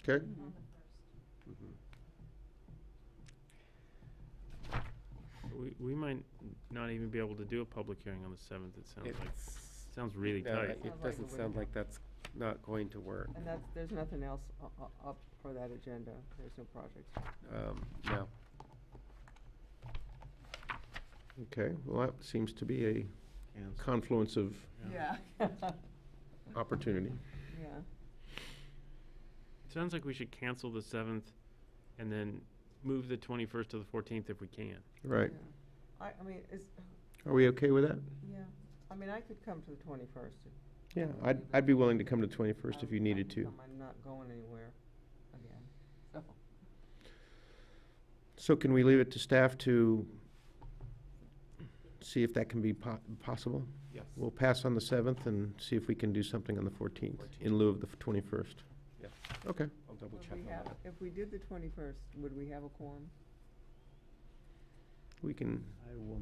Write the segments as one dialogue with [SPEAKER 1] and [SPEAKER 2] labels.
[SPEAKER 1] Okay?
[SPEAKER 2] We, we might not even be able to do a public hearing on the seventh, it sounds like.
[SPEAKER 3] It's,
[SPEAKER 2] Sounds really
[SPEAKER 3] no,
[SPEAKER 2] tight.
[SPEAKER 3] it-
[SPEAKER 4] Sounds like
[SPEAKER 3] it
[SPEAKER 4] it
[SPEAKER 3] doesn't
[SPEAKER 4] wouldn't
[SPEAKER 3] sound like
[SPEAKER 4] work.
[SPEAKER 3] that's not going to work.
[SPEAKER 4] And that's, there's nothing else u- u- up for that agenda. There's no projects.
[SPEAKER 3] Um, no.
[SPEAKER 1] Okay, well, that seems to be a confluence of
[SPEAKER 4] Yeah. Yeah.
[SPEAKER 1] opportunity.
[SPEAKER 2] Sounds like we should cancel the seventh and then move the twenty-first to the fourteenth if we can.
[SPEAKER 1] Right.
[SPEAKER 4] yeah. I, I mean, it's,
[SPEAKER 1] Are we okay with that?
[SPEAKER 4] yeah, I mean, I could come to the twenty-first.
[SPEAKER 1] Yeah, I'd, I'd be willing to come to 21st if you needed to.
[SPEAKER 4] I'm not going anywhere again, so.
[SPEAKER 1] So can we leave it to staff to see if that can be po- possible?
[SPEAKER 3] Yes.
[SPEAKER 1] We'll pass on the 7th and see if we can do something on the 14th in lieu of the 21st.
[SPEAKER 3] Yes.
[SPEAKER 1] Okay.
[SPEAKER 3] I'll double
[SPEAKER 4] Would
[SPEAKER 3] check
[SPEAKER 4] we
[SPEAKER 3] on
[SPEAKER 4] have-
[SPEAKER 3] that.
[SPEAKER 4] If we did the twenty-first, would we have a quorum?
[SPEAKER 1] We can,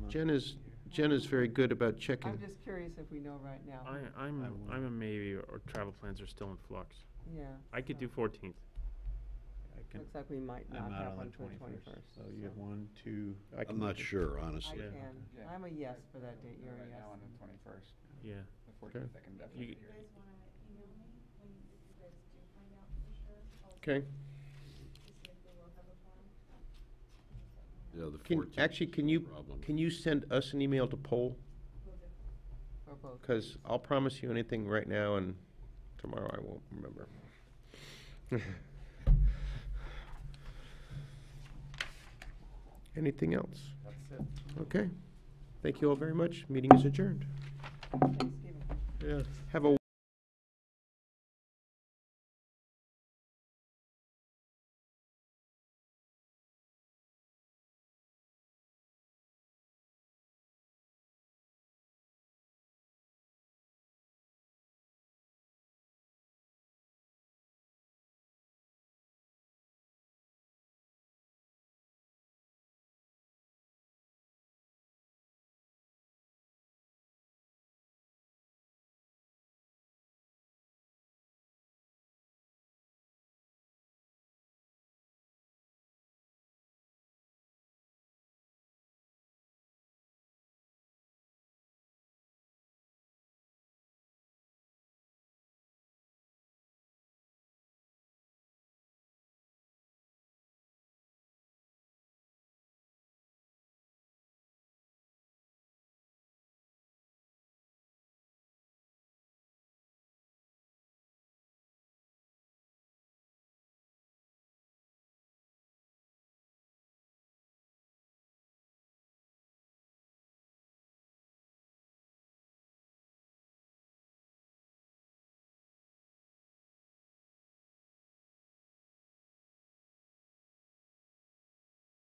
[SPEAKER 1] Jen is, Jen is very good about checking.
[SPEAKER 4] I'm just curious if we know right now.
[SPEAKER 2] I, I'm,
[SPEAKER 3] I won't.
[SPEAKER 2] I'm a maybe, or travel plans are still in flux.
[SPEAKER 4] Yeah.
[SPEAKER 2] I could do
[SPEAKER 4] so
[SPEAKER 2] fourteenth.
[SPEAKER 4] Looks like we might not have one for the twenty-first.
[SPEAKER 3] one, two.
[SPEAKER 1] I
[SPEAKER 5] I'm
[SPEAKER 1] can-
[SPEAKER 5] not sure,
[SPEAKER 4] I
[SPEAKER 5] honestly.
[SPEAKER 2] Yeah.
[SPEAKER 4] can,
[SPEAKER 6] Yeah.
[SPEAKER 4] I'm a yes for that date, you're a
[SPEAKER 6] Right now on the
[SPEAKER 4] yes.
[SPEAKER 6] twenty-first,
[SPEAKER 2] Yeah,
[SPEAKER 6] the fourteenth, I can definitely
[SPEAKER 2] You-
[SPEAKER 6] be here.
[SPEAKER 7] guys wanna email me when you, if you guys do find out for sure, I'll
[SPEAKER 1] Okay.
[SPEAKER 7] see if we will have a forum.
[SPEAKER 5] Yeah, the
[SPEAKER 1] Can,
[SPEAKER 5] 14th
[SPEAKER 1] actually,
[SPEAKER 5] is
[SPEAKER 1] can
[SPEAKER 5] no
[SPEAKER 1] you,
[SPEAKER 5] problem.
[SPEAKER 1] can you send us an email to poll?
[SPEAKER 4] For both.
[SPEAKER 1] Because I'll promise you anything right now, and tomorrow I won't remember. Anything else?
[SPEAKER 6] That's it.
[SPEAKER 1] Okay. Thank you all very much. Meeting is adjourned.
[SPEAKER 4] Thanksgiving.
[SPEAKER 1] Have a